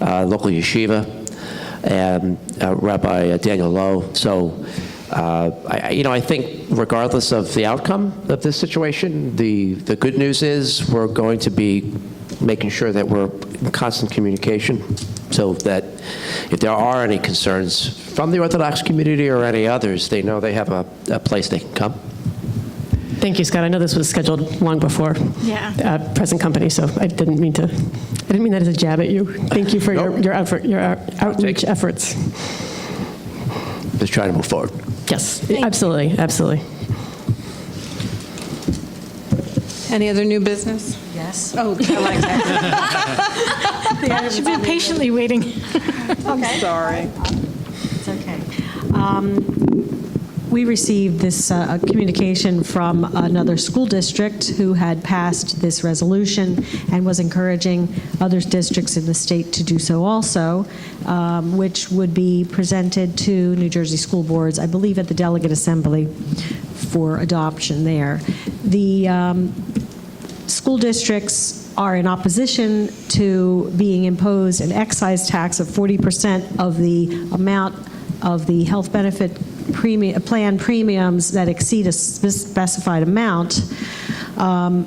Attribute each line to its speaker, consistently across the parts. Speaker 1: uh, local yeshiva, and uh, Rabbi Daniel Lowe. So, uh, I, I- you know, I think regardless of the outcome of this situation, the, the good news is we're going to be making sure that we're in constant communication so that if there are any concerns from the Orthodox community or any others, they know they have a, a place they can come.
Speaker 2: Thank you, Scott. I know this was scheduled long before
Speaker 3: Yeah.
Speaker 2: uh, present company, so I didn't mean to, I didn't mean that as a jab at you. Thank you for your
Speaker 1: Nope.
Speaker 2: your effort, your out- outreach
Speaker 1: it.
Speaker 2: efforts.
Speaker 1: Just trying to move forward.
Speaker 2: Yes, absolutely, absolutely.
Speaker 4: Any other new business?
Speaker 5: Yes.
Speaker 4: Oh, I like that.
Speaker 3: She's been patiently waiting.
Speaker 4: I'm sorry.
Speaker 5: It's okay. Um, We received this uh, communication from another school district who had passed this resolution and was encouraging other districts in the state to do so also, um, which would be presented to New Jersey school boards, I believe, at the delegate assembly for adoption there. The um, school districts are in opposition to being imposed an excise tax of 40% of the amount of the health benefit premium, plan premiums that exceed a spe- specified amount. Um,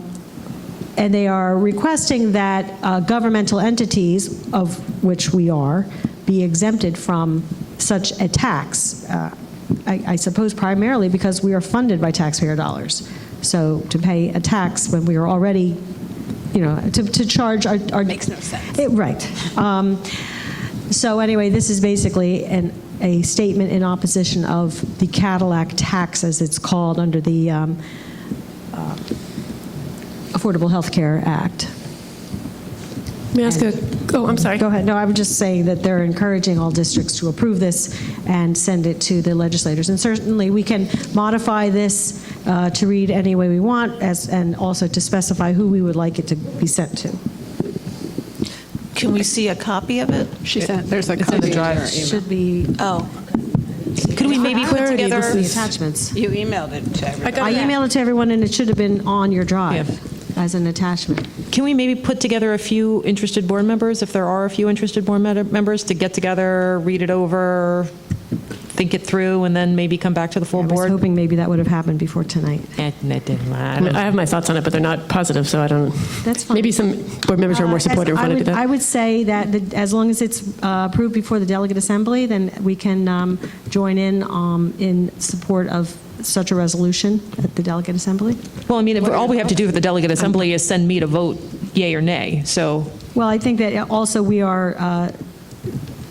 Speaker 5: And they are requesting that uh, governmental entities, of which we are, be exempted from such a tax. Uh, I I suppose primarily because we are funded by taxpayer dollars. So to pay a tax when we are already, you know, to, to charge our, our. Makes no sense. Right. Um, So anyway, this is basically an, a statement in opposition of the Cadillac tax, as it's called, under the um, uh, Affordable Health Care Act.
Speaker 2: May I ask a, oh, I'm sorry.
Speaker 5: Go ahead. No, I'm just saying that they're encouraging all districts to approve this and send it to the legislators. And certainly, we can modify this uh, to read any way we want, as, and also to specify who we would like it to be sent to.
Speaker 6: Can we see a copy of it?
Speaker 4: She sent, there's a copy in her email.
Speaker 5: Should be.
Speaker 6: Oh. Could we maybe put
Speaker 2: Clarity,
Speaker 6: together?
Speaker 2: this
Speaker 5: The
Speaker 2: is-
Speaker 5: attachments.
Speaker 4: You emailed it to everybody.
Speaker 5: I emailed it to everyone, and it should have been on your drive as an attachment.
Speaker 7: Can we maybe put together a few interested board members, if there are a few interested board med- members, to get together, read it over, think it through, and then maybe come back to the
Speaker 5: I
Speaker 7: full
Speaker 5: was
Speaker 7: board?
Speaker 5: hoping maybe that would have happened before tonight.
Speaker 7: Eh, that didn't
Speaker 2: I
Speaker 7: matter.
Speaker 2: mean, I have my thoughts on it, but they're not positive, so I don't.
Speaker 5: That's fine.
Speaker 2: Maybe some board members who are
Speaker 5: Uh,
Speaker 2: more
Speaker 5: as-
Speaker 2: supportive
Speaker 5: I
Speaker 2: want to do
Speaker 5: would- I
Speaker 2: that.
Speaker 5: would say that the- as long as it's uh, approved before the delegate assembly, then we can um, join in um, in support of such a resolution at the delegate assembly.
Speaker 7: Well, I mean, if- all we have to do for the delegate assembly is send me to vote yay or nay, so,
Speaker 5: Well, I think that also we are, uh,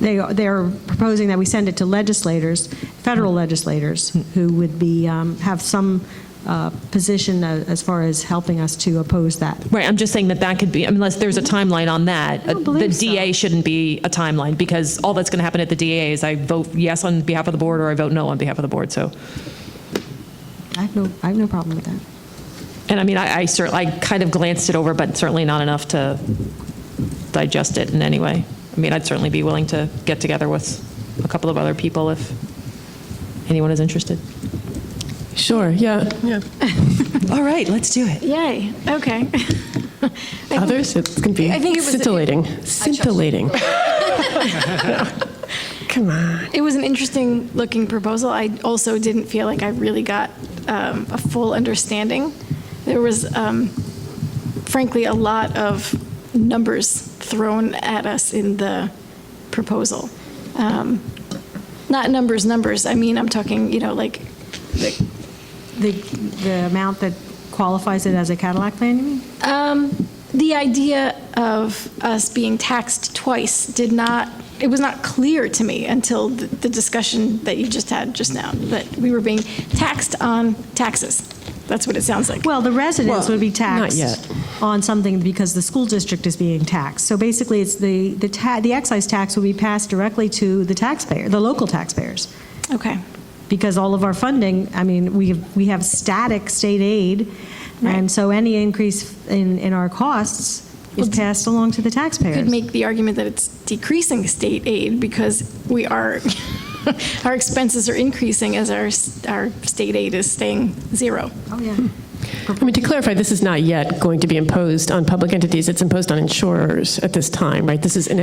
Speaker 5: they are, they are proposing that we send it to legislators, federal legislators, who would be, um, have some uh, position a- as far as helping us to oppose that.
Speaker 7: right, I'm just saying that that could be, unless there's a timeline on that.
Speaker 5: I don't believe
Speaker 7: The DA shouldn't be a timeline, because all that's going to happen at the DA is I vote yes on behalf of the board, or I vote no on behalf of the board, so.
Speaker 5: I have no, I have no problem with that.
Speaker 7: And I mean, I, I certainly, I kind of glanced it over, but certainly not enough to digest it in any way. I mean, I'd certainly be willing to get together with a couple of other people if anyone is interested.
Speaker 2: Sure, yeah, yeah.
Speaker 7: All right, let's do it.
Speaker 3: Yay, okay.
Speaker 2: Others, it can be
Speaker 3: I think it was-
Speaker 2: scintillating, scintillating. Come on.
Speaker 3: It was an interesting looking proposal. I also didn't feel like I really got um, a full understanding. There was, um, frankly, a lot of numbers thrown at us in the proposal. Um, Not numbers, numbers. I mean, I'm talking, you know, like,
Speaker 5: The, the amount that qualifies it as a Cadillac plan, you mean?
Speaker 3: Um, The idea of us being taxed twice did not, it was not clear to me until the the discussion that you just had just now, that we were being taxed on taxes. That's what it sounds like.
Speaker 5: Well, the residents would be
Speaker 2: yet.
Speaker 5: taxed on something because the school district is being taxed. So basically, it's the, the ta, the excise tax will be passed directly to the taxpayer, the local taxpayers.
Speaker 3: Okay,
Speaker 5: Because all of our funding, I mean, we have, we have static state aid. And so any increase in, in our costs is passed along to the
Speaker 3: could
Speaker 5: taxpayers.
Speaker 3: make the argument that it's decreasing state aid because we are, our expenses are increasing as our, s- our state aid is staying zero.
Speaker 5: Oh, yeah.
Speaker 2: I mean, to clarify, this is not yet going to be imposed on public entities. It's imposed on insurers at this time, right? This is an